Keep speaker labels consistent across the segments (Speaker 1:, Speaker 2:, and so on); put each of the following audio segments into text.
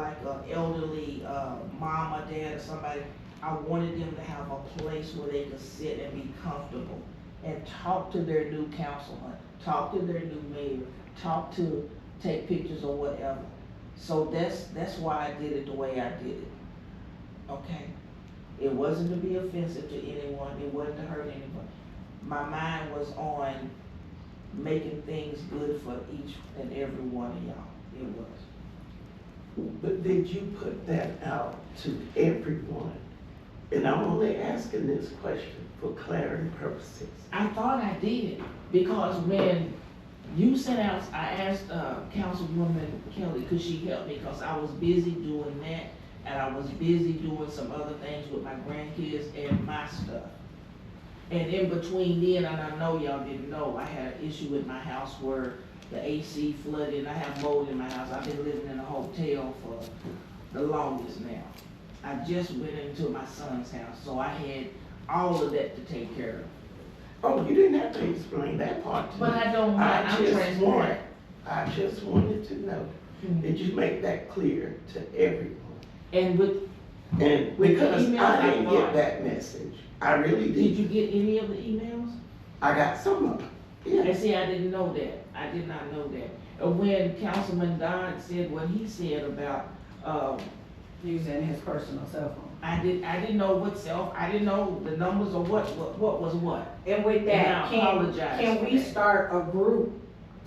Speaker 1: uh, elderly, uh, mom or dad or somebody, I wanted them to have a place where they could sit and be comfortable and talk to their new councilman, talk to their new mayor, talk to, take pictures or whatever. So that's, that's why I did it the way I did it. Okay? It wasn't to be offensive to anyone, it wasn't to hurt anyone. My mind was on making things good for each and every one of y'all. It was.
Speaker 2: But did you put that out to everyone? And I'm only asking this question for clarity purposes.
Speaker 1: I thought I did, because when you sent out, I asked, uh, Councilwoman Kelly, could she help me, cause I was busy doing that, and I was busy doing some other things with my grandkids and my stuff. And in between then, and I know y'all didn't know, I had an issue with my house where the AC flooded, and I have mold in my house, I've been living in a hotel for the longest now. I just went into my son's house, so I had all of that to take care of.
Speaker 2: Oh, you didn't have to explain that part to me.
Speaker 1: But I don't mind,
Speaker 2: I
Speaker 1: I'm
Speaker 2: just want,
Speaker 1: transparent.
Speaker 2: I just wanted to know, did you make that clear to everyone?
Speaker 1: And with,
Speaker 2: And
Speaker 1: With the
Speaker 2: because I
Speaker 1: emails,
Speaker 2: didn't
Speaker 1: I
Speaker 2: get
Speaker 1: lied.
Speaker 2: that message, I really
Speaker 1: did you
Speaker 2: did.
Speaker 1: get any of the emails?
Speaker 2: I got some of them,
Speaker 1: And
Speaker 2: yeah.
Speaker 1: see, I didn't know that, I did not know that. And when Councilman Dodd said what he said about, um,
Speaker 3: using his personal cell phone.
Speaker 1: I did, I didn't know what self, I didn't know the numbers or what, what, what was what.
Speaker 3: And with
Speaker 1: And I
Speaker 3: that, can,
Speaker 1: apologize
Speaker 3: can
Speaker 1: for
Speaker 3: we
Speaker 1: that.
Speaker 3: start a group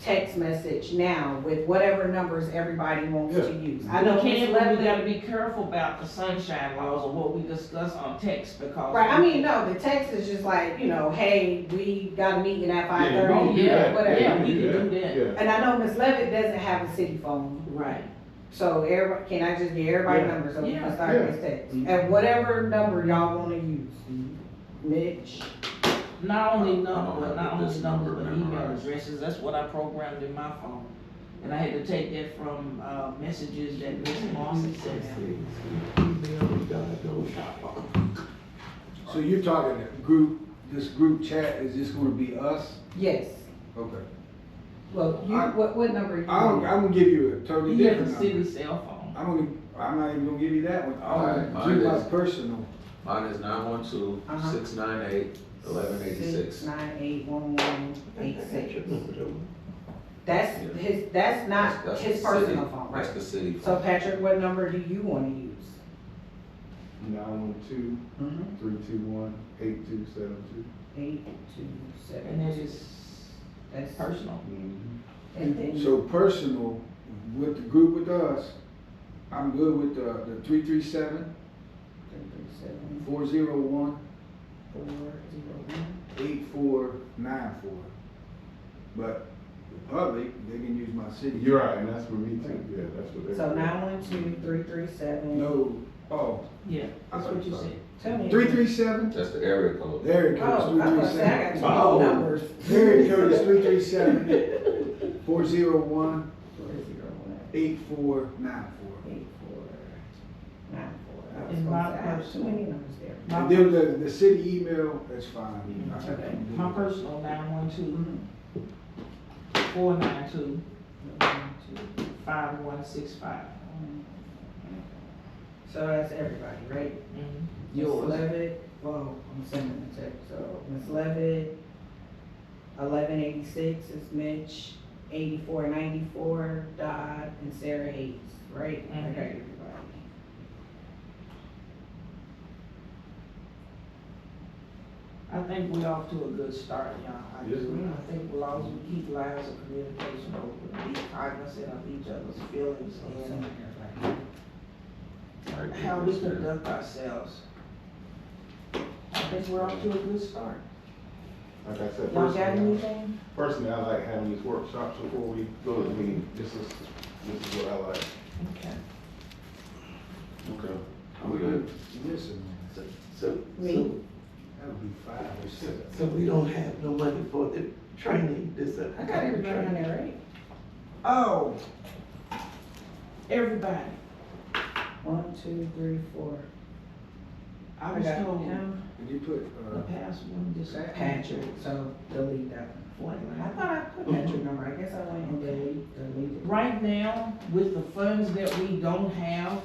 Speaker 3: text message now with whatever numbers everybody wants to use? I know
Speaker 1: We
Speaker 3: Ms.
Speaker 1: can't, but we
Speaker 3: Lebanon,
Speaker 1: gotta be careful about the sunshine laws or what we discuss on text because.
Speaker 3: right, I mean, no, the text is just like, you know, hey, we got a meeting at five
Speaker 4: Yeah, you can
Speaker 3: thirty,
Speaker 4: do that.
Speaker 3: whatever.
Speaker 1: Yeah, we
Speaker 4: you
Speaker 1: can do that.
Speaker 3: And I know Ms. Levitt doesn't have a city phone,
Speaker 1: Right,
Speaker 3: so everybody, can I just get everybody
Speaker 4: Yeah.
Speaker 3: numbers so we
Speaker 1: Yeah.
Speaker 3: can start this text?
Speaker 4: Mhm.
Speaker 3: And whatever number y'all wanna use, Mitch.
Speaker 1: not only
Speaker 5: I don't
Speaker 1: number,
Speaker 5: have
Speaker 1: not
Speaker 5: this
Speaker 1: only number,
Speaker 5: number
Speaker 1: but email
Speaker 5: memorized.
Speaker 1: addresses, that's what I programmed in my phone. And I had to take that from, uh, messages that Miss Lawson sent out.
Speaker 6: So you're talking that group, this group chat is just gonna be us?
Speaker 3: Yes,
Speaker 6: Okay.
Speaker 3: well, you,
Speaker 6: I-
Speaker 3: what, what number? you
Speaker 6: I'm,
Speaker 3: want?
Speaker 6: I'm gonna give you a totally
Speaker 1: You had
Speaker 6: different
Speaker 1: the city
Speaker 6: number.
Speaker 1: cell phone.
Speaker 6: I'm gonna, I'm not even gonna give you that one. I'm
Speaker 5: Alright,
Speaker 6: gonna give
Speaker 5: mine
Speaker 6: my
Speaker 5: is-
Speaker 6: personal.
Speaker 5: Mine is nine one two,
Speaker 3: Uh-huh.
Speaker 5: six nine eight, eleven
Speaker 3: Six,
Speaker 5: eighty-six.
Speaker 3: nine, eight, one, one, eight, six.
Speaker 2: Eighty-six.
Speaker 3: That's
Speaker 5: Yeah.
Speaker 3: his, that's not his personal phone, right?
Speaker 5: That's the city
Speaker 3: So
Speaker 5: phone.
Speaker 3: Patrick, what number do you wanna use?
Speaker 4: Nine one two, three two one, eight two seven two.
Speaker 3: Eight, two,
Speaker 1: And
Speaker 3: seven,
Speaker 1: it is
Speaker 3: that's personal.
Speaker 1: personal.
Speaker 3: And then,
Speaker 6: So personal, with the group with us, I'm good with the, the three three seven,
Speaker 3: seven,
Speaker 6: four zero one,
Speaker 3: four, zero, one.
Speaker 6: eight four, nine four. But the public, they can use my city.
Speaker 4: You're right, and that's for me too, yeah, that's what.
Speaker 3: So
Speaker 4: everybody-
Speaker 3: nine, one, two, three, three, seven.
Speaker 6: No, oh,
Speaker 1: Yeah, that's what you said.
Speaker 3: Tell me.
Speaker 6: three three seven?
Speaker 5: That's the area code.
Speaker 6: There it goes,
Speaker 3: Oh,
Speaker 6: three
Speaker 3: I
Speaker 6: three
Speaker 3: was
Speaker 6: seven.
Speaker 3: saying, I got two
Speaker 2: Wow.
Speaker 5: Oh.
Speaker 6: Oh.
Speaker 3: phone numbers.
Speaker 6: Area code is three three seven four zero one
Speaker 3: Four, zero, one,
Speaker 6: eight four nine four.
Speaker 3: eight, four, nine, four. I was
Speaker 1: And
Speaker 3: gonna
Speaker 1: my
Speaker 3: say, I have too
Speaker 1: personal-
Speaker 3: many numbers there.
Speaker 6: And then the, the city email, that's fine. I can
Speaker 3: Okay.
Speaker 6: do
Speaker 1: My
Speaker 6: that.
Speaker 1: personal nine one two,
Speaker 3: Mhm.
Speaker 1: four nine two,
Speaker 3: One, two,
Speaker 1: five one six five.
Speaker 3: one. So that's everybody, right?
Speaker 1: Mm-hmm.
Speaker 3: Ms.
Speaker 1: Yours.
Speaker 3: Levitt, well, I'm sending the text, so Ms. Levitt, eleven eighty-six is Mitch, eighty-four ninety-four, Dodd, and Sarah Hayes, right? I got
Speaker 1: Mhm.
Speaker 3: everybody.
Speaker 1: I think we off to a good start, y'all. I
Speaker 4: Yes,
Speaker 1: do.
Speaker 4: ma'am.
Speaker 1: I think as long as we keep lines of communication open, be cognizant of each other's feelings
Speaker 3: So I'm
Speaker 1: and
Speaker 3: sending everybody.
Speaker 5: Right,
Speaker 1: how we
Speaker 5: that's it.
Speaker 1: conduct ourselves. I think we're off to a good start.
Speaker 4: Like I said,
Speaker 1: Y'all got
Speaker 4: personally,
Speaker 1: anything?
Speaker 4: personally, I like having these workshops before we go to the meeting, this is, this is what I like.
Speaker 1: Okay.
Speaker 5: Okay. I'm good.
Speaker 6: Listen,
Speaker 2: So, so,
Speaker 3: Me.
Speaker 6: that would be five or six.
Speaker 2: so we don't have no money for the training, this. uh,
Speaker 3: I got everybody on there, right?
Speaker 1: Oh, everybody,
Speaker 3: One, two, three, four.
Speaker 1: I was
Speaker 3: got
Speaker 1: told
Speaker 3: him.
Speaker 6: Did you put,
Speaker 1: the
Speaker 6: uh,
Speaker 1: past one just.
Speaker 3: Patrick, so delete that one. I
Speaker 1: Forty-nine.
Speaker 3: thought I put
Speaker 1: Mm-hmm.
Speaker 3: Patrick number, I guess I went and delete, deleted.
Speaker 1: Right now, with the funds that we don't have,